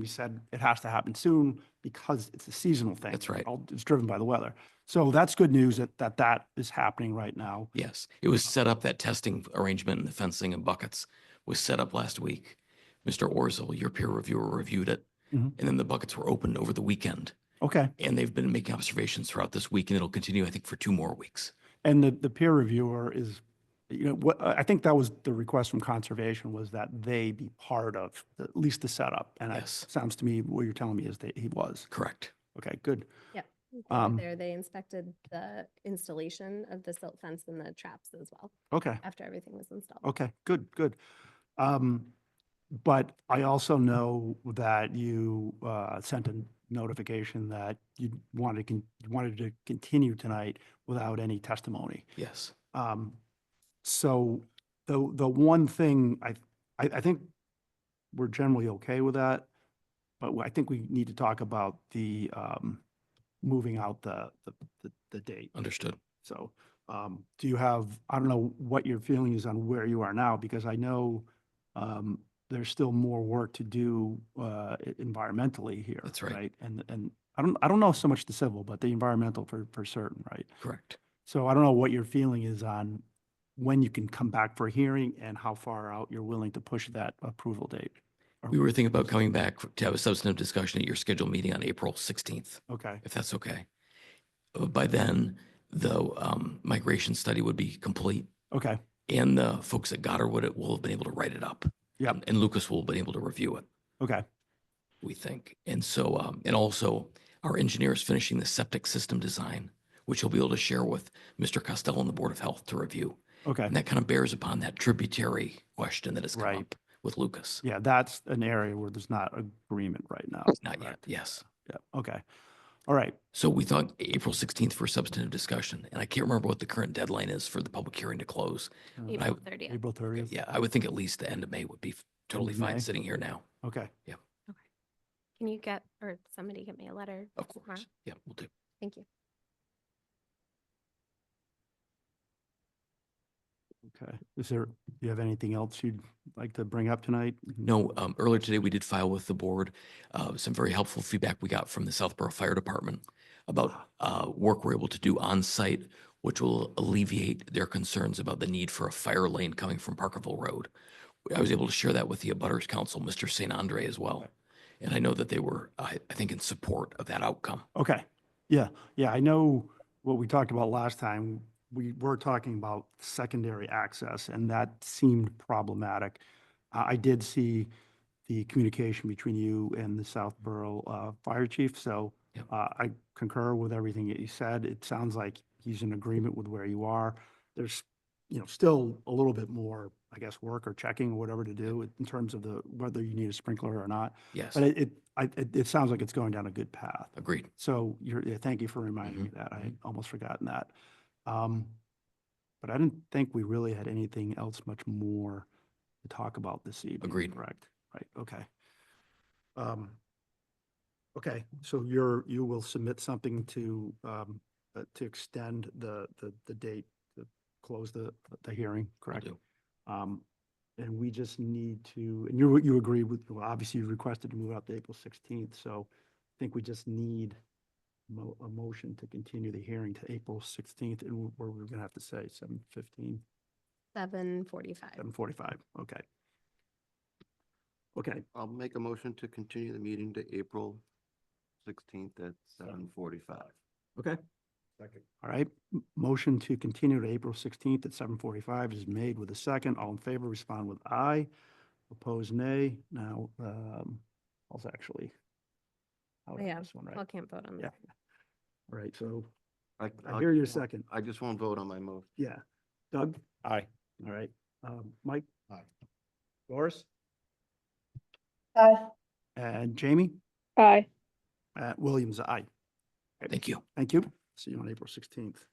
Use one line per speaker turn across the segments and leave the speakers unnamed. we said it has to happen soon because it's a seasonal thing.
That's right.
All- It's driven by the weather. So that's good news that, that that is happening right now.
Yes, it was set up, that testing arrangement and the fencing and buckets was set up last week. Mr. Orzel, your peer reviewer, reviewed it. And
Mhm.
then the buckets were opened over the weekend
Okay.
and they've been making observations throughout this week and it'll continue, I think, for two more weeks.
And the, the peer reviewer is, you know, what, I I think that was the request from conservation was that they be part of at least the setup. And it
Yes.
sounds to me, what you're telling me is that he was.
Correct.
Okay, good.
They were
Um,
There, they inspected the installation of the silt fence and the traps as well,
Okay,
after everything was installed.
okay, good, good. Um, but I also know that you, uh, sent a notification that you wanted, to con- you wanted to continue tonight without any testimony.
Yes.
Um, so the, the one thing I, I, I think we're generally okay with that. But I think we need to talk about the, um, moving out the, the, the, the date.
Understood.
So, um, do you have, I don't know what your feeling is on where you are now, because I know, um, there's still more work to do, uh, e- environmentally here.
That's right.
And, and I don't, I don't know so much the civil, but the environmental for, for certain, right?
Correct.
So I don't know what your feeling is on when you can come back for a hearing and how far out you're willing to push that approval date. Or-
We were thinking about coming back to have a substantive discussion at your scheduled meeting on April 16th,
Okay,
if that's okay. Uh, By then, the um, migration study would be complete
okay,
and the folks at Goddard would, will have been able to write it up.
Yep.
and- And Lucas will have been able to review it,
okay,
we think. And so, um, and also our engineer is finishing the septic system design, which he'll be able to share with Mr. Costello and the Board of Health to review.
okay.
And that kind of bears upon that tributary question that has come
Right.
up with Lucas.
Yeah, that's an area where there's not agreement right now.
Not yet,
correct?
yes.
Yeah, okay. All right,
So we thought April 16th for substantive discussion, and I can't remember what the current deadline is for the public hearing to close.
uh,
I-
April thirtieth.
April 30th?
Yeah, I would think at least the end of May would be totally
of Mm-hmm. May.
fine sitting here now.
Okay,
Can you get, or somebody get me a letter?
Of
tomorrow?
course. Yeah, we'll do.
Thank you.
okay. Is there, do you have anything else you'd like to bring up tonight?
No, um, earlier today, we did file with the board, uh, some very helpful feedback we got from the Southborough Fire Department about,
Ah.
uh, work we're able to do on site, which will alleviate their concerns about the need for a fire lane coming from Parkerville Road. I was able to share that with the abutters council, Mr. St. Andre as well. And I know that they were, I, I think in support of that outcome.
Okay, yeah, yeah, I know what we talked about last time. We were talking about secondary access, and that seemed problematic. I I did see the communication between you and the Southborough uh, Fire Chief, so
Yep.
uh, I concur with everything that you said. It sounds like he's in agreement with where you are. There's, you know, still a little bit more, I guess, work or checking or whatever to do in terms of the, whether you need a sprinkler or not.
Yes,
But it, it, I- it, it sounds like it's going down a good path.
agreed.
So you're, yeah, thank you for reminding me of that. I had almost forgotten that. Um, But I didn't think we really had anything else much more to talk about this evening.
Agreed.
Correct, right, okay. Um, Okay, so you're, you will submit something to, um, uh, to extend the, the, the date, to close the, the hearing,
Will
correct?
do.
Um, and we just need to, and you, you agree with, well, obviously you requested to move out to April sixteenth, so I think we just need mo- a motion to continue the hearing to April sixteenth, and we're- we're, we're gonna have to say seven fifteen,
Seven forty-five.
seven forty-five, okay. Okay,
I'll make a motion to continue the meeting to April sixteenth at seven forty-five.
okay. Second. All right, m- motion to continue to April sixteenth at seven forty-five is made with a second. All in favor, respond with aye. Opposed, nay. Now, um, I was actually. out on
Yeah,
this one, right?
Paul can't vote on
Yeah.
that.
All right, so
I
I
I'll-
hear your second.
I just won't vote on my motion.
Yeah. Doug? Aye. All right. Um, Mike? Aye. Doris?
Aye.
And Jamie?
Aye.
Uh, Williams, aye.
Thank you.
Thank you. See you on April sixteenth.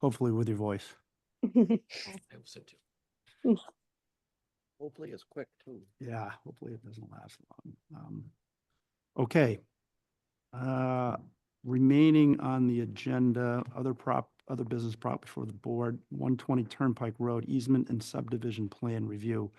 Hopefully with your voice.
I will send you.
Hopefully it's quick too.
Yeah, hopefully it doesn't last long. Um, Okay. Uh, Remaining on the agenda, other prop, other business prop before the board, 120 Turnpike Road easement and subdivision plan review.